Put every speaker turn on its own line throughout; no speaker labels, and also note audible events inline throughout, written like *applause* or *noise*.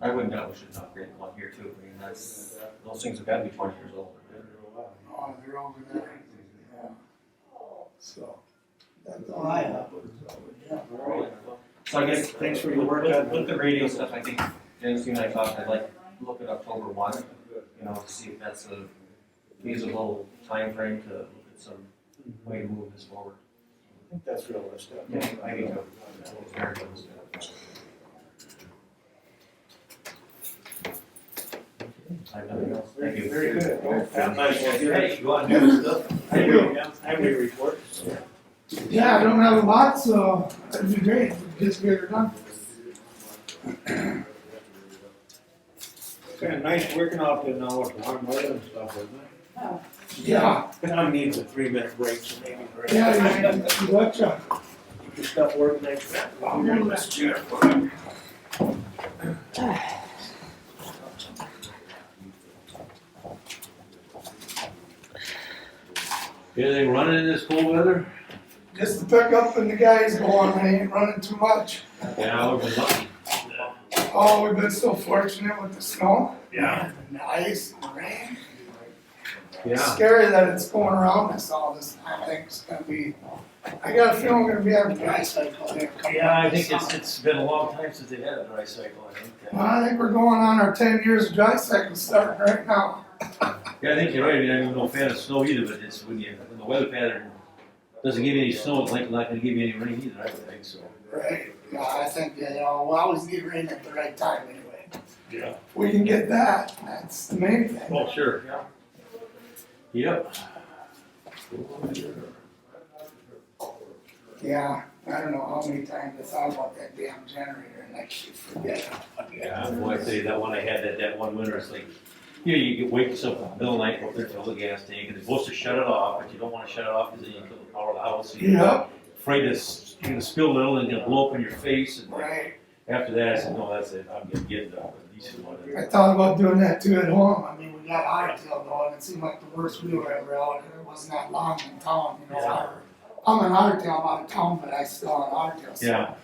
I wouldn't doubt we should upgrade one here too, I mean, that's, those things have gotta be twenty years old.
Oh, they're over there. Yeah.
So. That's
all I have. Yeah.
So I guess.
Thanks for your work
With-
on-
Uh, With the radio stuff, I think, Dennis, you and I talked, I'd like, to look at October one, you know, to see if that's a feasible timeframe to look at some way to move this forward.
I think that's realistic.
Yeah, I do too. I have nothing else. Thank you.
Very good.
Sounds like, well,
Hey,
you want to do stuff?
I will, I will report.
Yeah, I don't have a lot, so it'd be great, if just get it done.
Kind of nice working out there now with warm weather and stuff, isn't it?
Yeah,
I need a three minute break, so maybe. for-
yeah, you can, you betcha.
Get your stuff working next time.
I'll move this chair.
Anything running in this cold weather?
Just to pick up and the guys going, I ain't running too much.
Yeah, we've been lucky.
Oh, we've been so fortunate with the snow.
Yeah.
And the ice and the rain. It's
Yeah.
Scary that it's going around us all this time, I think it's gonna be, I got a feeling we're gonna be having dry cycle here. coming
Yeah, I
up this
think it's,
summer.
it's been a long time since they've had a dry cycle, I think.
Well, I think we're going on our ten years of dry cycle starting right now.
Yeah, I think you're right, I mean, I'm no fan of snow either, but it's when you, when the weather pattern doesn't give you any snow, it's like not gonna give you any rain either, I would think, so.
Right. Yeah, I think, yeah, you know, we always need rain at the right time anyway.
Yeah.
We can get that, that's the main thing.
Oh, sure, yeah. Yep.
Yeah, I don't know how many times I thought about that damn generator and I keep forgetting.
Yeah, well, I say that one I had, that, that one winter, it's like, you know, you get wake yourself up in the middle of the night, go up there, fill the gas tank, and they're supposed to shut it off, but you don't wanna shut it off, cause then you kill the power of the house. and you're
Yep,
Afraid it's gonna spill a little and gonna blow up in your face, and
right.
after that, I said, no, that's it, I'm gonna get the decent one.
I thought about doing that too at home. I mean, we got Ottail going. It seemed like the worst we were ever out, and it wasn't that long in town, you know. I'm in Ottail, I'm out of town, but I still on Ottail. So
Yeah,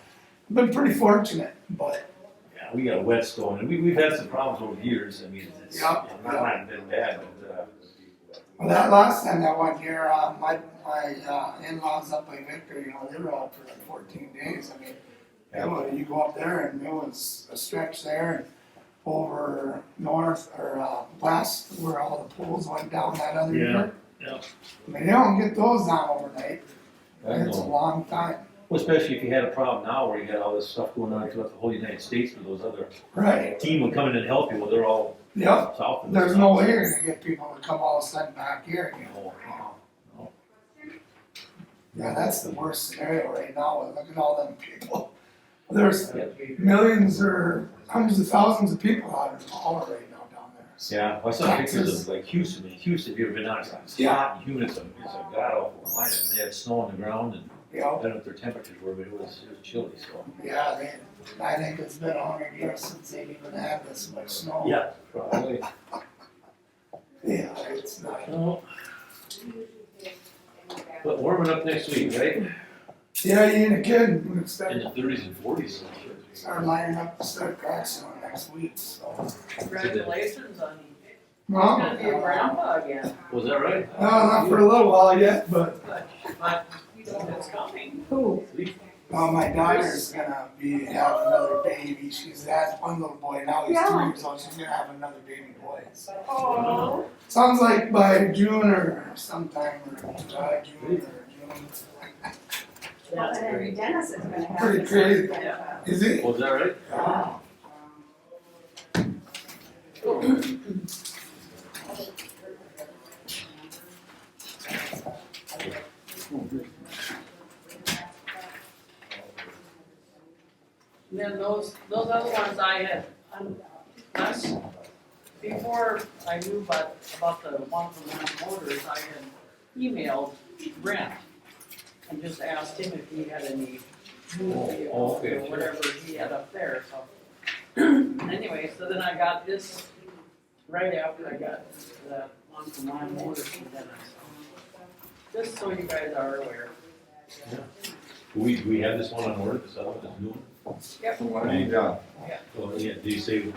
I've been pretty fortunate, but
Yeah, we got a wet storm, and we, we've had some problems over the years, I mean, it's, it's
Yeah.
not not been bad, but, uh,
well, that last time that one year, uh, my my uh, in-laws up by Victor, you know, they were out for like 14 days. I mean,
Yeah.
it was, you go up there and it was a stretch there and over north or uh, west where all the pools went down that other
Yeah.
year.
Yeah.
I mean, they don't get those down overnight.
I
It's a
know.
long time.
Well, especially if you had a problem now where you got all this stuff going on throughout the whole United States with those other
Right.
team would come in and help you, well, they're all
Yep.
south of this.
There's no way you're gonna get people to come all of a sudden back here again.
No.
Yeah, that's the worst scenario right now. Look at all them people. There's
Yeah.
millions or hundreds of thousands of people out in Paula right now down there. So,
Yeah, well, I saw pictures
Texas.
of like Houston, man, Houston, if you've ever been out, it's like it's
Yeah.
hot and humid, it's a, it's a god awful climate, and they had snow on the ground, and
You
I
know,
don't know what their temperatures were, but it was, it was chilly, so.
yeah, they, I think it's been a hundred years since they've even had this much snow.
Yeah. Probably.
Yeah, it's not,
Well, Oh. But warming up next week, right?
yeah, you ain't a kid. We
In
start,
the thirties and forties.
start lining up to start cracks on next week, so.
Congratulations on
Well,
gonna be a grandpa again.
Was that right?
No, not for a little while yet, but,
But it's coming.
uh, my daughter's gonna be, have another baby. She's had one little boy, now he's three
Yeah.
years old. She's gonna have another baby boy, so.
Oh.
Sounds like by June or sometime or July, June or June.
That's
Well,
great.
Dennis is gonna have.
Pretty
this.
crazy.
Yeah.
Is it?
Was that right?
Wow.
And then those, those other ones I had, um, last, before I knew about, about the one from Land Motors, I had emailed Brent and just asked him if he had any movie
Oh,
or
okay, sure.
whatever he had up there, so. *clears throat* Anyway, so then I got this right after I got the one from Land Motors from Dennis. Just so you guys are aware.
We, we had this one on order, this other one, this new one.
Yep.
Well, yeah, do you say